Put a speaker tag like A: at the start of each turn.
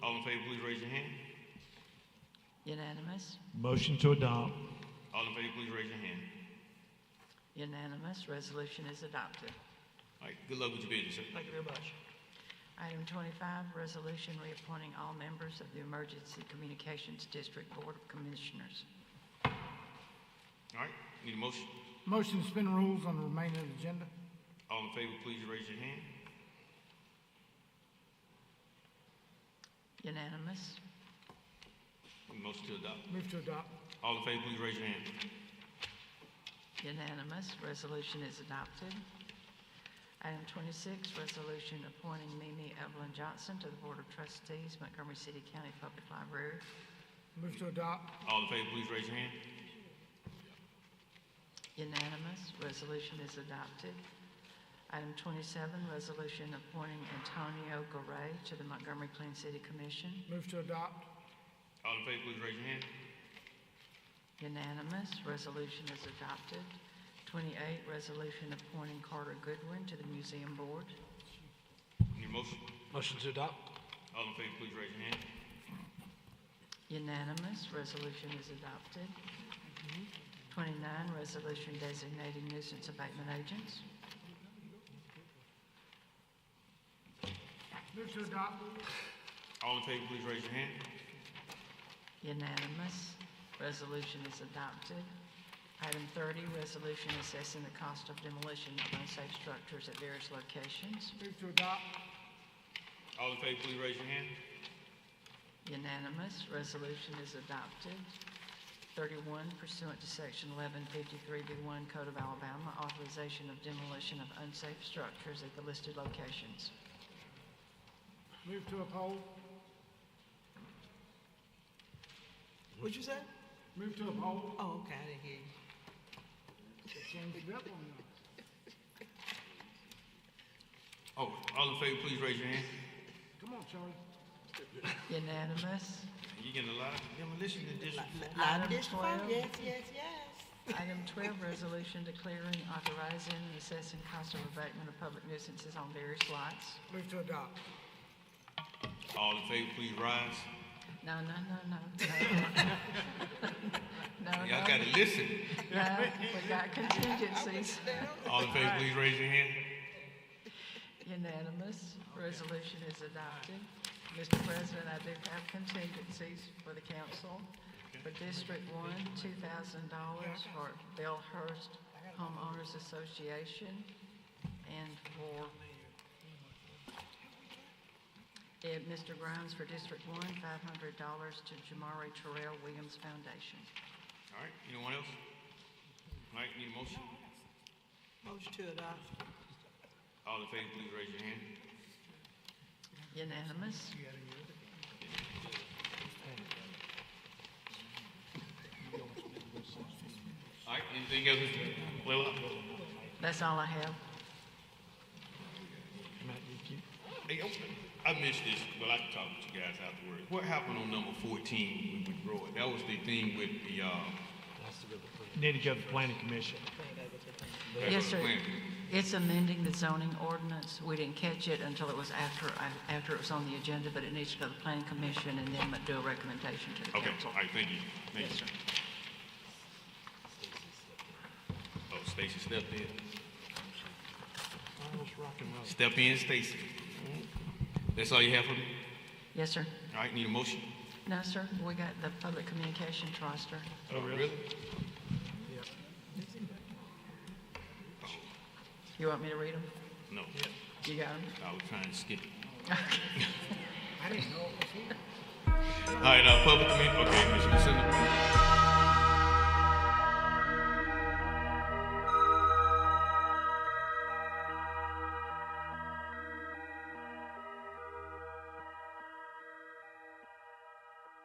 A: favor, please raise your hand.
B: Unanimous?
C: Motion to adopt.
A: All in favor, please raise your hand.
B: Unanimous. Resolution is adopted.
A: All right, good luck with your business, sir.
D: Thank you very much.
B: Item 25, resolution reappointing all members of the Emergency Communications District Board of Commissioners.
A: All right, need a motion?
E: Motion to suspend rules on the remainder of the agenda.
A: All in favor, please raise your hand.
B: Unanimous?
A: Motion to adopt.
E: Move to adopt.
A: All in favor, please raise your hand.
B: Unanimous. Resolution is adopted. Item 26, resolution appointing Mimi Evelyn Johnson to the Board of Trustees, Montgomery City County Public Library.
E: Move to adopt.
A: All in favor, please raise your hand.
B: Unanimous. Resolution is adopted. Item 27, resolution appointing Antonio Garay to the Montgomery Clean City Commission.
E: Move to adopt.
A: All in favor, please raise your hand.
B: Unanimous. Resolution is adopted. 28, resolution appointing Carter Goodwin to the Museum Board.
A: Need a motion?
D: Motion to adopt.
A: All in favor, please raise your hand.
B: Unanimous. Resolution is adopted. 29, resolution designating nuisance abatement agents.
E: Move to adopt.
A: All in favor, please raise your hand.
B: Unanimous. Resolution is adopted. Item 30, resolution assessing the cost of demolition of unsafe structures at various locations.
E: Move to adopt.
A: All in favor, please raise your hand.
B: Unanimous, resolution is adopted. 31 pursuant to Section 1153B1 Code of Alabama, authorization of demolition of unsafe structures at the listed locations.
E: Move to uphold.
D: What'd you say?
E: Move to uphold.
D: Oh, okay, I didn't hear you.
E: Changed it up on us.
A: Oh, all in favor, please raise your hand.
E: Come on, Charlie.
B: Unanimous.
A: You getting a lot of demolition in District Four?
B: Item
D: District five,
B: 12.
D: Yes, yes, yes.
B: Item 12, resolution declaring, authorizing, and assessing cost of abatement of public nuisances on various lots.
E: Move to adopt.
A: All in favor, please rise.
B: No, no, no, no, no. No, no,
A: Y'all gotta listen.
B: no, we got contingencies.
A: All in favor, please raise your hand.
B: Unanimous. Resolution is adopted. Mr. President, I do have contingencies for the council. For District One, two thousand dollars for Bellhurst Homeowners Association and for Eh, Mr. Grimes for District One, five hundred dollars to Jamari Terrell Williams Foundation.
A: All right, anyone else? All right, need a motion?
D: Motion to adopt.
A: All in favor, please raise your hand.
B: Unanimous.
A: All right, anything else, Mr. Blaylock?
B: That's all I have.
A: Hey, oh, I missed this, but I can talk to you guys afterwards. What happened on number fourteen with Roy? That was the thing with the, uh,
C: Need to go to planning commission.
B: Yes, sir.
A: plan.
B: It's amending the zoning ordinance. We didn't catch it until it was after, after it was on the agenda, but it needs to go to the planning commission and then do a recommendation to the
A: Okay,
B: council.
A: all right, thank you. Thank you. Oh, Stacy stepped in. Step in, Stacy. That's all you have for me?
B: Yes, sir.
A: All right, need a motion?
B: No, sir, we got the public communications roster.
A: Oh, really?
B: You want me to read them?
A: No,
B: You got them?
A: I was trying to skip it.
E: I didn't know it was here.
A: All right, uh, public commu, okay, Mr. Lucinda.